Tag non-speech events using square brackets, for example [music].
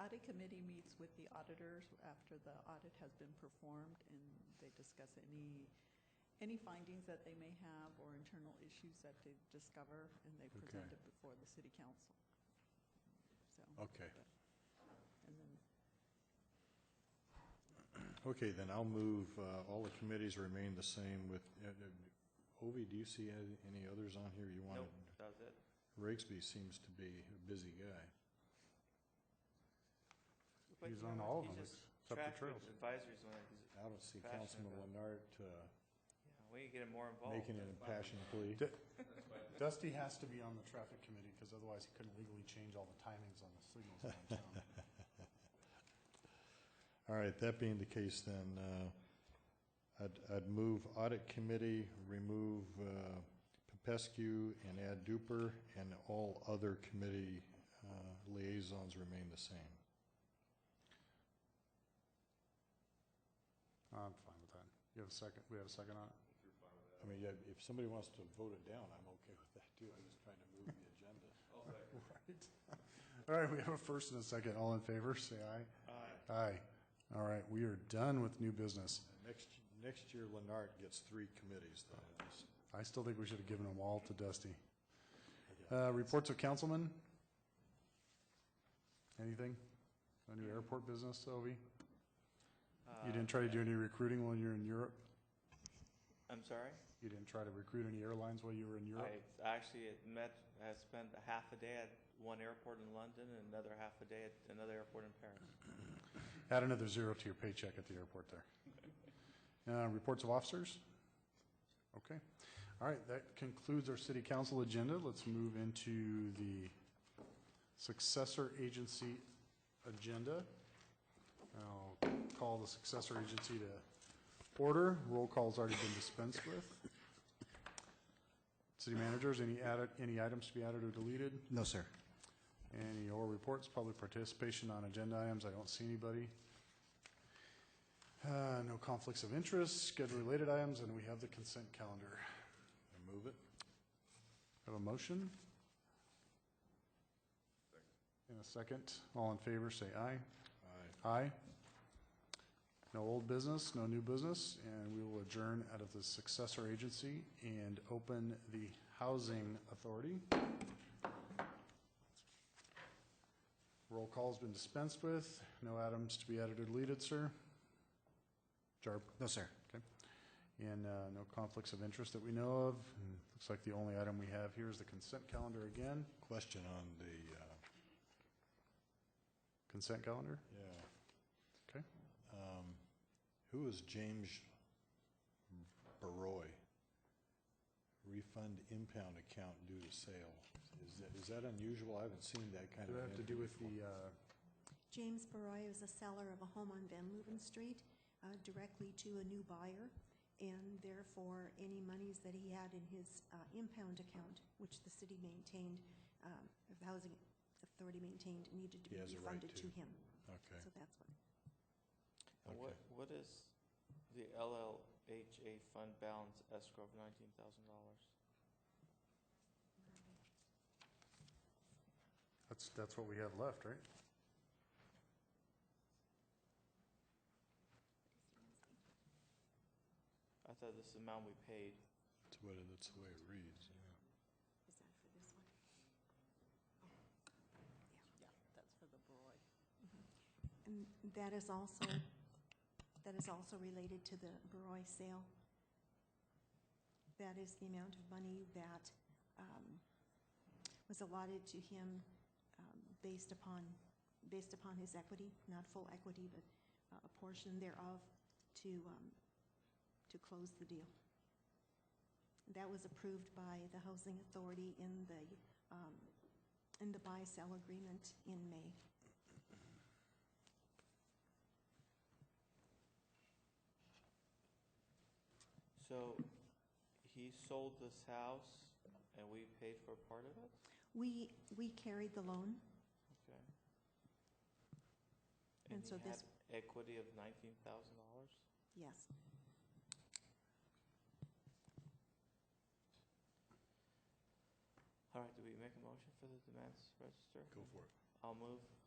audit committee meets with the auditors after the audit has been performed, and they discuss any, any findings that they may have or internal issues that they discover, and they present Okay. it before the city council. So, Okay, and then okay, then I'll move, uh, all the committees remain the same with, uh, uh, Ovi, do you see any any others on here you wanted? Nope, that was it. Rigsby seems to be a busy guy. But He's you know on what? all of He's them, just except traffic the trails. advisories one. He's, I don't see Passionate Councilman about- Leonard, uh, yeah, we get him more involved. making an impassioned plea. Di- Dusty has to be on the traffic committee, because otherwise he couldn't legally change all the timings on the signals downtown. All right, that being the case, then, uh, I'd, I'd move audit committee, remove, uh, Popescu and add Duper, and all other committee, uh, liaisons remain the same. [laughs] I'm fine with that. You have a second, we have a second on it? I mean, yeah, if somebody wants to vote it down, I'm okay with that too, I'm just trying to move the agenda. [laughs] Right. [laughs] All right, we have a first and a second. All in favor, say aye. Aye. Aye. All right, we are done with new business. Next, next year, Leonard gets three committees though. I still think we should have given them all to Dusty. Uh, reports of councilmen? Anything? No new airport business, Ovi? You didn't try to do any recruiting while you were in Europe? I'm sorry? You didn't try to recruit any airlines while you were in Europe? I actually had met, I spent a half a day at one airport in London and another half a day at another airport in Paris. Add another zero to your paycheck at the airport there. Uh, Reports of officers? Okay. All right, that concludes our city council agenda. Let's move into the successor agency agenda. I'll call the successor agency to order. Roll call's already been dispensed with. City managers, any added, any items to be added or deleted? No, sir. Any oral reports, public participation on agenda items, I don't see anybody. Uh, No conflicts of interest, schedule-related items, and we have the consent calendar. I move it. Have a motion? In a second, all in favor, say aye. Aye. Aye. No old business, no new business, and we will adjourn out of the successor agency and open the housing authority. Roll call's been dispensed with. No items to be added or deleted, sir. Jarb, No, sir. and uh, no conflicts of interest that we know of. And Looks like the only item we have here is the consent calendar again. Question on the, uh, Consent calendar? yeah. Okay. Um, who is James Baroy? Refund impound account due to sale. Is that, is that unusual? I haven't seen that kind Does of. that have to do with entry the, uh, James Baroy is a seller of a home on Van Leuven Street uh, directly to a new buyer, and therefore, any monies that he had in his uh, impound account, which the city maintained, um, the housing authority maintained, needed to He be has a right refunded to. to him. before. Okay, So that's what. And what, what is the LLHA fund balance escrow of nineteen thousand dollars? that's, that's what we have left, right? I thought this amount we paid. that's what, it- that's the way it reads, yeah. Is that for this one? Yeah, that's for the Broy. And that is also, that is also related to the Baroi sale. That is the amount of money that um, was allotted to him um, based upon, based upon his equity, not full equity, but uh, a portion thereof to, um, to close the deal. That was approved by the Housing Authority in the, um, in the buy-sell agreement in May. So he sold this house and we paid for part of it? We, we carried the loan, Okay. And so he had this- Equity of nineteen thousand dollars? yes. All right, do we make a motion for the demands register? Go for it. I'll move